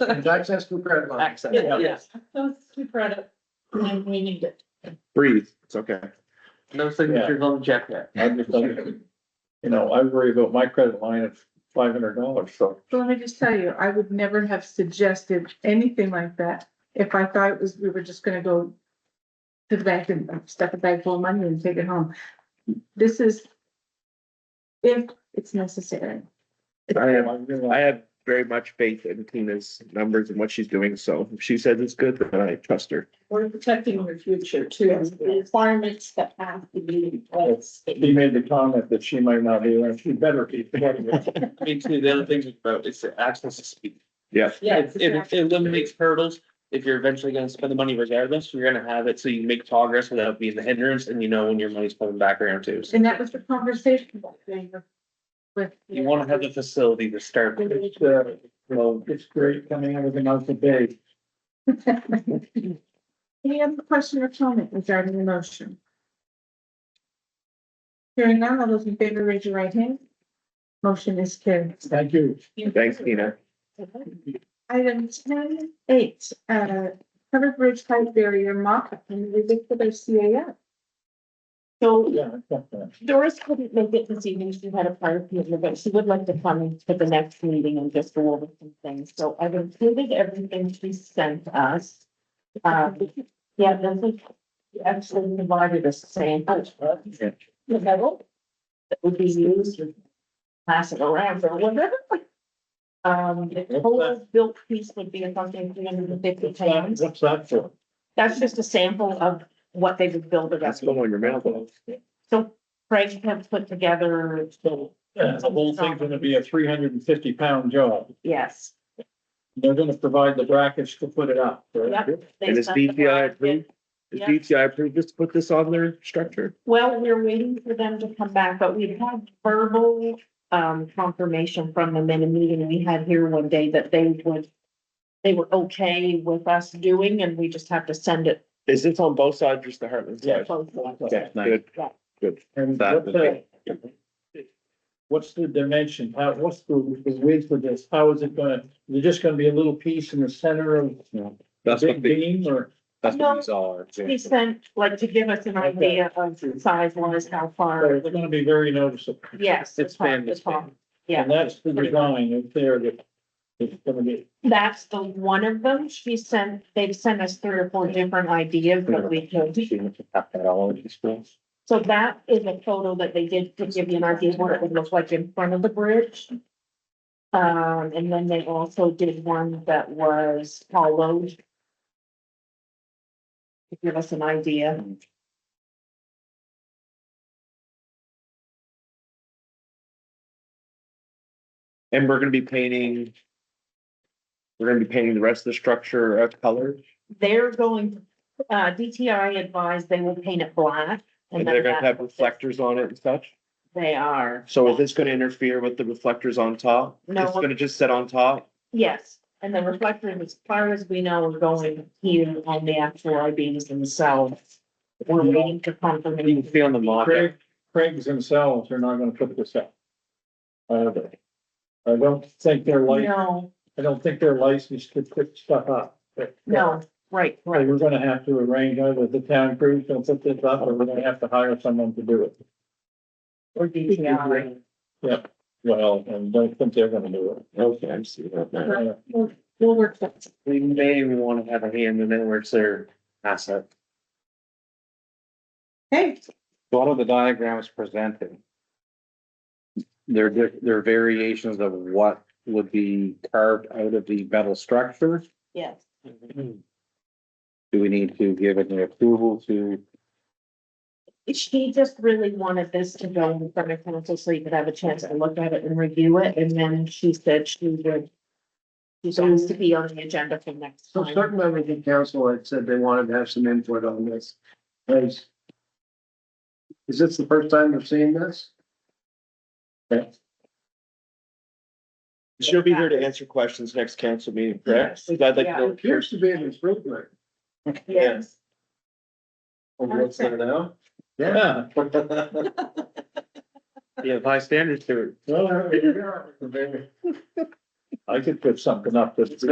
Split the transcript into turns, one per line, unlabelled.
Access to credit line.
Access, yeah.
Yeah, yeah. Those two credit, and we need it.
Breathe, it's okay.
No signatures on the check yet.
I'm just like, You know, I worry about my credit line of five hundred dollars, so.
So let me just tell you, I would never have suggested anything like that if I thought it was, we were just gonna go to the bank and stuff a bag full of money and take it home. This is if it's necessary.
I have,
I'm gonna-
I have very much faith in Tina's numbers and what she's doing, so if she says it's good, then I trust her.
We're protecting the future too. Requirements that have to be in place.
He made the comment that she might not be, and she better be.
Me too. The other thing about it's the access to speed.
Yeah,
Yeah,
It- It it eliminates hurdles. If you're eventually gonna spend the money regardless, you're gonna have it so you can make progress without being the hindrance and you know when your money's coming back around too. So
And that was the conversation about doing the- with.
You wanna have the facility to start. with.
It's, uh, Well, it's great coming out of the mouth of babe.
Any other question or comment regarding the motion? Hearing none, all those in favor, raise your right hand. Motion is carried.
Thank you.
thanks, Tina.
Item ten eight, uh, covered bridge height barrier mock-up and visit for the CAF.
So
Yeah, I got that.
Doris couldn't make it this evening, she had a prior commitment, but she would like to come for the next meeting and just go over some things, so I've included everything she sent us. Um, yeah, then we actually provided a sample.
Yeah.
The metal that would be used or pass it around or whatever. Um, the total built piece would be something three hundred and fifty pounds,
What's that for?
that's just a sample of what they would build it up.
That's the one you're mouth.
So Craig has put together,
So, uh, the whole thing's gonna be a three hundred and fifty pound job.
yes.
They're gonna provide the brackets to put it up. right?
Yep.
And is BPI approved? Is DTI approved just to put this on their structure?
Well, we're waiting for them to come back, but we have verbal um confirmation from them in a meeting we had here one day that they would. They were okay with us doing and we just have to send it.
Is this on both sides, just the Heartland
to
side?
both of them.
Okay, good, good.
And
That
what's
would
the, what's the dimension? How, what's the the width of this? How is it gonna, is it just gonna be a little piece in the center of the
That's
big
what the,
beam or?
that's
No.
what these are.
He sent, like, to give us an idea of size wise, how
or
far, it
It's
would-
gonna be very noticeable.
yes. the
It's been-
top, the
it's been-
top. Yeah.
And that's the design up there that it's gonna be.
That's the one of them. She sent, they've sent us three or four different ideas that we could. So that is a photo that they did to give you an idea of what it would look like in front of the bridge. Um, and then they also did one that was hollowed. To give us an idea.
And we're gonna be painting. We're gonna be painting the rest of the structure of color,
They're going, uh, DTI advised they will paint it black.
and
then
they're gonna
that-
have reflectors on it and such.
They are.
So is this gonna interfere with the reflectors on top?
No.
It's gonna just sit on top?
Yes, and the reflector, as far as we know, is going here on the actual IBs themselves. We're waiting to
You can
confirm.
see on the mock.
Craig, Craig's themselves are not gonna put this up. Uh, I don't think they're like,
No,
I don't think they're licensed to put stuff up.
no, right,
Right, we're gonna have to arrange either the town crews to put this up, or we're gonna have to hire someone to do it.
or DTI.
Well, and don't think they're gonna do
Okay, I see that
it.
now.
Uh,
We'll we'll work that.
We may even wanna have a hand in it where it's their asset.
Hey,
a lot of the diagrams presented. They're, di- they're variations of what would be carved out of the metal structure.
Yes,
Do we need to give any approval to,
she just really wanted this to go in front of council so you could have a chance to look at it and review it, and then she said she would. She's supposed to be on the agenda for next
So
time.
certain members of council had said they wanted to have some input on this. Is is this the first time you've seen this?
She'll be here to answer questions next council meeting, correct? So I'd like to
Yeah.
It
know-
appears to be an improvement.
Yes.
what's there
now?
Yeah.
Yeah, high standards to it.
Well, I could put something up that's.